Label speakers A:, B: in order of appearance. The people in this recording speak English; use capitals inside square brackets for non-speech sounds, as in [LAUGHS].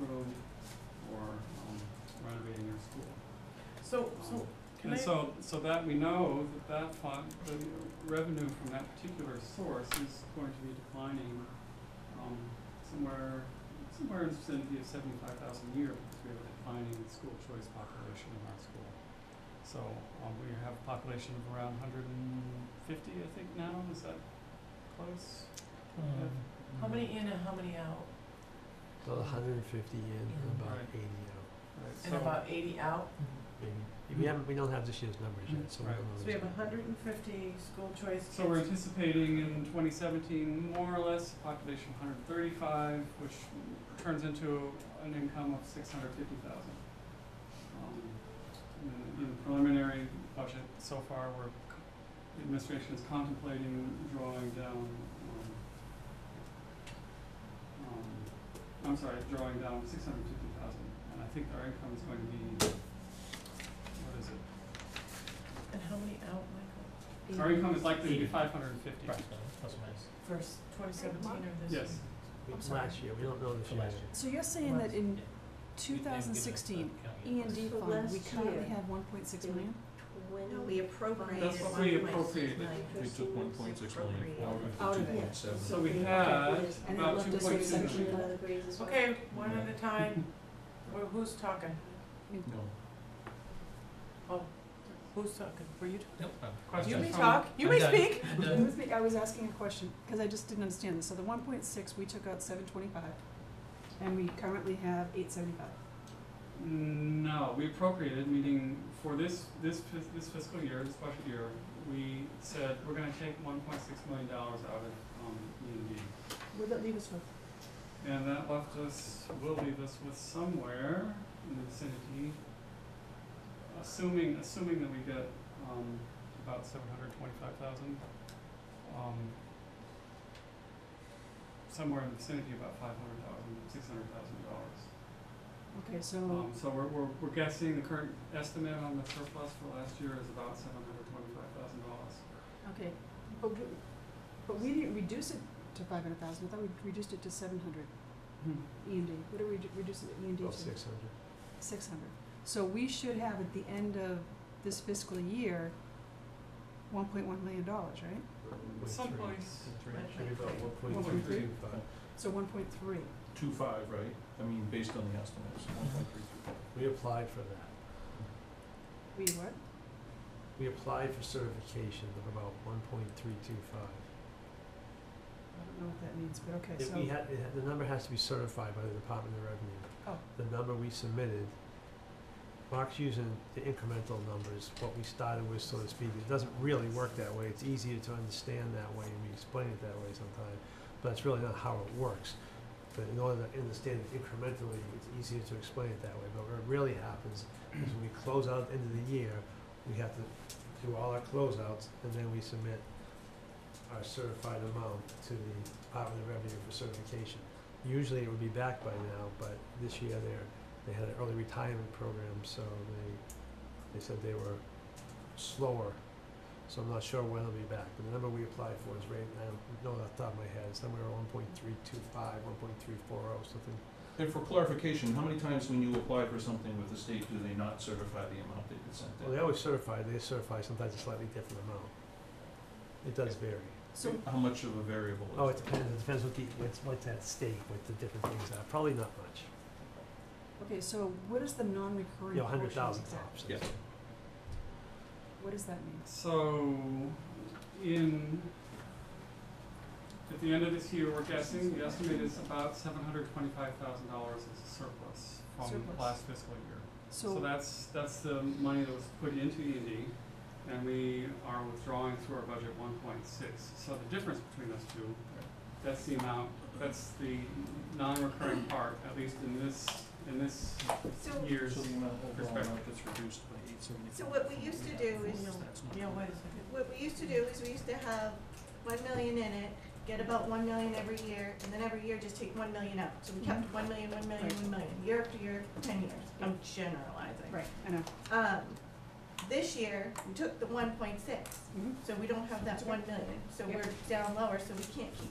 A: road or um, renovating their school. Um,
B: So, so, can I?
A: And so, so that we know that that fund, the revenue from that particular source is going to be declining, um, somewhere, somewhere in the vicinity of seventy-five thousand a year, because we have a declining school choice population in our school. So, um, we have a population of around hundred and fifty, I think now, is that close?
C: Um,
B: How many in and how many out?
C: About hundred and fifty in and about
A: Right.
C: eighty out.
A: Right,
B: And
A: so-
B: about eighty out?
C: Maybe, we haven't, we don't have this year's numbers yet, so we
A: Right.
C: don't know.
B: So we have
C: exactly.
B: hundred and fifty school choice kids.
A: So we're anticipating in twenty seventeen, more or less, population one hundred thirty-five, which turns into an income of six hundred fifty thousand. Um, In the preliminary budget so far, we're, the administration is contemplating drawing down, um, um, I'm sorry, drawing down six hundred fifty thousand, and I think our income is going to be, what is it?
B: And how many out, Michael,
A: Our income is likely to be five hundred and fifty.
B: for twenty seventeen or this?
A: Yes.
B: year?
C: We-
D: I'm sorry.
C: Last year, we don't know this year.
D: So you're saying that in 2016, E and D
E: For
D: fund, we
E: last
D: currently
E: year,
D: have 1.6
E: they
D: million?
E: No, we appropriated.
A: That's what we appropriated.
E: We took one point six million
D: Out of it.
A: So we had
D: And it
A: about
D: left
A: two point
D: us with
A: two
D: essentially
A: million.
B: Okay, one at a
A: [LAUGHS]
B: time. Well, who's talking? Oh, who's talking? Were you? talking? You
A: Questions
B: may
A: from-
B: talk, you may
D: done.
B: speak.
D: It was me- I was asking a question, because I just didn't understand this. So the 1.6, we took out 725, and we currently have 875.
A: No, we appropriated, meaning for this, this fis- this fiscal year, this budget year, we said we're gonna take one point six million dollars out of, um, E and D.
D: Where'd that leave us with?
A: And that left us, will leave us with somewhere in the vicinity, assuming, assuming that we get, um, about seven hundred twenty-five thousand, um, somewhere in the vicinity of about five hundred thousand, six hundred thousand dollars.
D: Okay, so,
A: Um, so we're, we're, we're guessing the current estimate on the surplus for last year is about seven hundred twenty-five thousand dollars.
D: okay, but we, but we didn't reduce it to 500,000. I thought we reduced it to 700, E and D. What did we redu- reduce it, E and D to?
C: About six hundred.
D: Six hundred. So we should have at the end of this fiscal year, one point one million dollars, right?
A: Someplace,
C: Maybe about one point
A: One
C: three
A: point
C: three
A: three.
C: five.
D: So one point three.
E: Two five, right? I mean, based on the estimates, one point three two five.
C: We applied for that.
D: We what?
C: We applied for certification of about one point three two five.
D: I don't know what that means, but okay,
C: If we
D: so,
C: had, it had- the number has to be certified by the Department of Revenue.
D: Oh.
C: The number we submitted, Mark's using the incremental numbers, what we started with, so to speak. It doesn't really work that way. It's easier to understand that way, and we explain it that way sometimes, but it's really not how it works. But in order to understand it incrementally, it's easier to explain it that way. But what really happens is when we close out at the end of the year, we have to do all our closeouts, and then we submit our certified amount to the Department of Revenue for certification. Usually it would be back by now, but this year they're, they had an early retirement program, so they, they said they were slower. So I'm not sure when it'll be back, but the number we applied for is right, I don't know off the top of my head, it's somewhere one point three two five, one point three four oh, something.
E: And for clarification, how many times when you apply for something with the state, do they not certify the amount that you sent in?
C: Well, they always certify, they certify sometimes a slightly different amount. It does vary.
D: so,
E: How much of a variable is?
C: Oh, it
E: that?
C: depends, it depends what the, what's, what's at stake, what the different things are, probably not much.
D: okay, so what is the non-recurring portion?
C: you know, hundred thousand
D: of that?
C: tops.
E: Yeah.
D: What does that mean?
A: so in, at the end of this year, we're guessing, the estimate is about seven hundred twenty-five thousand dollars as a surplus from
D: Surplus.
A: last fiscal year. So
D: So,
A: that's, that's the money that was put into E and D, and we are withdrawing through our budget one point six. So the difference between those two, that's the amount, that's the non-recurring part, at least in this, in this
F: So,
A: year's.
E: So the amount, overall amount
A: Perspective.
E: that's reduced by eight seventy-four.
F: So what we used to do is-
B: yeah, wait a second.
F: what we used to do is we used to have one million in it, get about one million every year, and then every year just take one million out. So we
D: Mm-hmm.
F: kept one million, one million, one million, year after year, ten years, I'm generalizing.
D: right, I know,
F: Um, this year, we took the one point six,
D: Mhm.
F: so we don't have that one million, so
D: Yep.
F: we're down lower, so we can't keep